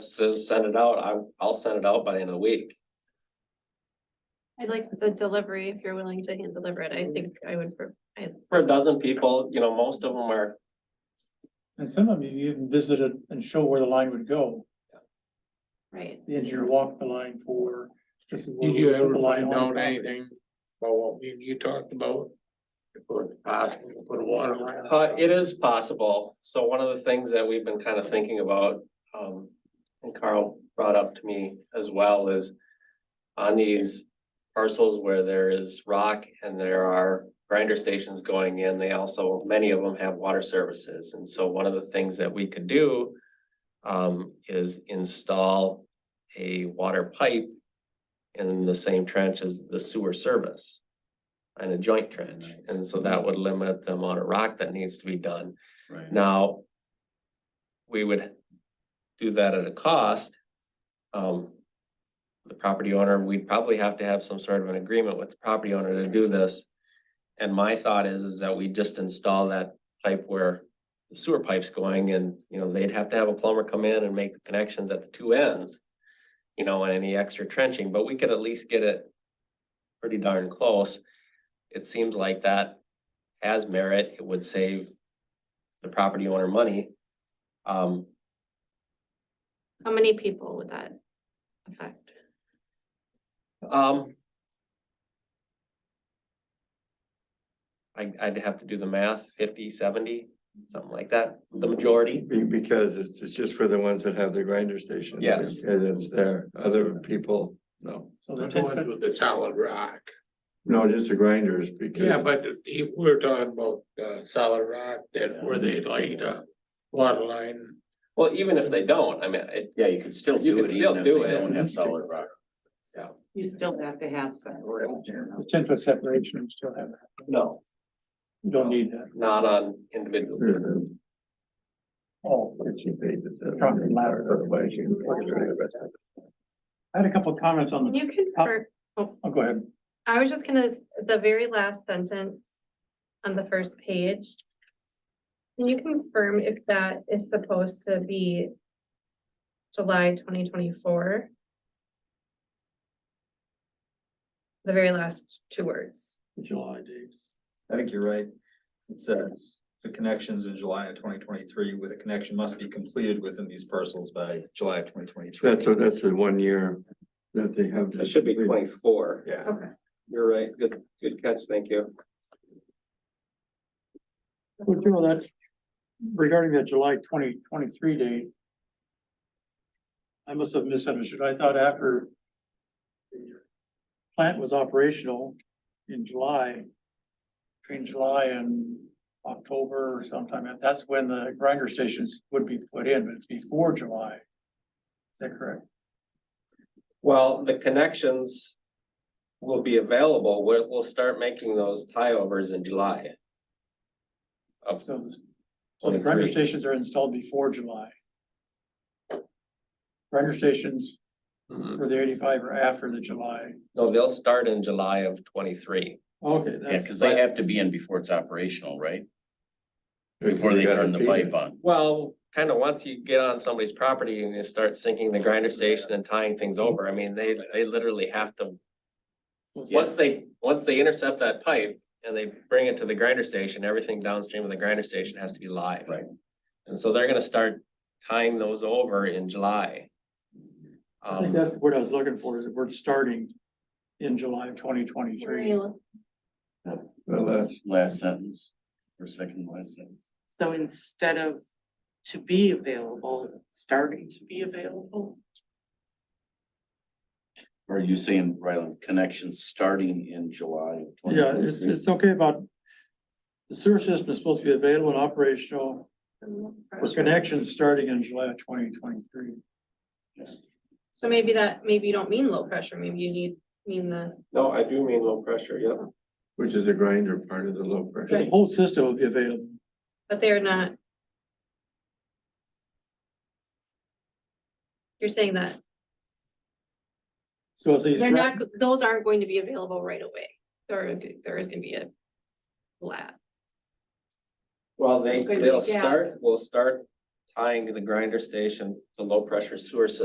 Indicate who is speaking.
Speaker 1: says send it out, I, I'll send it out by the end of the week.
Speaker 2: I like the delivery, if you're willing to hand deliver it, I think I would, pre- I,
Speaker 1: For a dozen people, you know, most of them are,
Speaker 3: And some of you even visited and show where the line would go.
Speaker 2: right,
Speaker 3: The engineer walked the line for. this is where
Speaker 4: Did you
Speaker 3: we put
Speaker 4: ever
Speaker 3: the line
Speaker 4: find
Speaker 3: on the
Speaker 4: out
Speaker 3: property.
Speaker 4: anything about what we, you talked about? If it's possible to put a water line.
Speaker 1: uh, it is possible. So one of the things that we've been kind of thinking about, um, and Carl brought up to me as well is on these parcels where there is rock and there are grinder stations going in, they also, many of them have water services. And so one of the things that we could do um, is install a water pipe in the same trench as the sewer service and a joint trench. And so that would limit the amount of rock that needs to be done.
Speaker 5: Right.
Speaker 1: Now, we would do that at a cost. Um, the property owner, we'd probably have to have some sort of an agreement with the property owner to do this. And my thought is, is that we just install that pipe where the sewer pipe's going and, you know, they'd have to have a plumber come in and make the connections at the two ends. You know, and any extra trenching, but we could at least get it pretty darn close. It seems like that has merit. It would save the property owner money. Um,
Speaker 2: how many people would that affect?
Speaker 1: um. I, I'd have to do the math, 50, 70, something like that, the majority.
Speaker 5: Be- because it's, it's just for the ones that have the grinder station.
Speaker 1: Yes.
Speaker 5: And it's there, other people, no,
Speaker 3: So the
Speaker 4: The
Speaker 3: ten
Speaker 4: ones
Speaker 3: foot,
Speaker 4: with the solid rock.
Speaker 5: no, just the grinders because.
Speaker 4: Yeah, but you- we're talking about uh solid rock that where they laid a water line.
Speaker 1: Well, even if they don't, I mean, it,
Speaker 6: Yeah, you could still
Speaker 1: You
Speaker 6: do
Speaker 1: could
Speaker 6: it
Speaker 1: still
Speaker 6: even if they
Speaker 1: do it.
Speaker 6: don't have solid rock.
Speaker 1: yeah,
Speaker 7: You still have to have some.
Speaker 3: the ten foot separation, and still have, that.
Speaker 1: no,
Speaker 3: you don't need that.
Speaker 1: not on individuals.
Speaker 5: Hmm.
Speaker 3: Oh,
Speaker 5: If you paid the-
Speaker 3: Property ladder.
Speaker 5: Otherwise you-
Speaker 3: I had a couple of comments on
Speaker 2: Can
Speaker 3: the,
Speaker 2: you confirm,
Speaker 3: oh, go ahead.
Speaker 2: I was just gonna, s- the very last sentence on the first page. Can you confirm if that is supposed to be July twenty twenty-four? The very last two words.
Speaker 3: July dates.
Speaker 8: I think you're right. It says the connections in July of twenty twenty-three with a connection must be completed within these parcels by July of twenty twenty-three.
Speaker 5: That's, a- that's the one year that they have. to-
Speaker 1: It should be twenty-four.
Speaker 5: Yeah.
Speaker 2: Okay.
Speaker 1: You're right. Good, good catch. Thank you.
Speaker 3: So Joe, that, regarding that July twenty twenty-three date. I must have misunderstood. I thought after. the Plant was operational in July. Between July and October or sometime, and that's when the grinder stations would be put in, but it's before July. Is that correct?
Speaker 1: Well, the connections will be available. We'll, we'll start making those tieovers in July. Of
Speaker 3: So, it's- so the grinder
Speaker 1: 23.
Speaker 3: stations are installed before July. Grinder stations
Speaker 1: Mhm.
Speaker 3: for the eighty-five are after the July.
Speaker 1: No, they'll start in July of twenty-three.
Speaker 3: Okay,
Speaker 6: Yeah,
Speaker 3: that's.
Speaker 6: cause they have to be in before it's operational, right?
Speaker 5: If
Speaker 6: Before they
Speaker 5: you gotta
Speaker 6: turn the
Speaker 5: feed
Speaker 6: pipe
Speaker 5: it.
Speaker 6: on.
Speaker 1: Well, kind of once you get on somebody's property and you start sinking the grinder station and tying things over, I mean, they, they literally have to. Once they, once they intercept that pipe and they bring it to the grinder station, everything downstream of the grinder station has to be live.
Speaker 6: Right.
Speaker 1: And so they're gonna start tying those over in July.
Speaker 3: I think
Speaker 1: Um,
Speaker 3: that's what I was looking for, is that we're starting in July of twenty twenty-three.
Speaker 5: Well, that's,
Speaker 6: Last sentence or second to last sentence.
Speaker 7: So instead of to be available, starting to be available.
Speaker 6: Or are you saying, Ryland, connections starting in July of twenty
Speaker 3: Yeah, it's,
Speaker 6: twenty-three?
Speaker 3: it's okay about, the sewer system is supposed to be available and operational for connections starting in July of twenty twenty-three.
Speaker 2: So maybe that, maybe you don't mean low pressure, maybe you need, mean the,
Speaker 1: no, I do mean low pressure, yep.
Speaker 5: which is a grinder part of the low pressure.
Speaker 3: The whole system will be available.
Speaker 2: but they're not. You're saying that
Speaker 3: So it's these,
Speaker 2: they're not, those aren't going to be available right away, there, there is gonna be a lab.
Speaker 1: Well, they,
Speaker 2: It's gonna be
Speaker 1: they'll
Speaker 2: a gap.
Speaker 1: start, we'll start tying the grinder station, the low pressure sewer system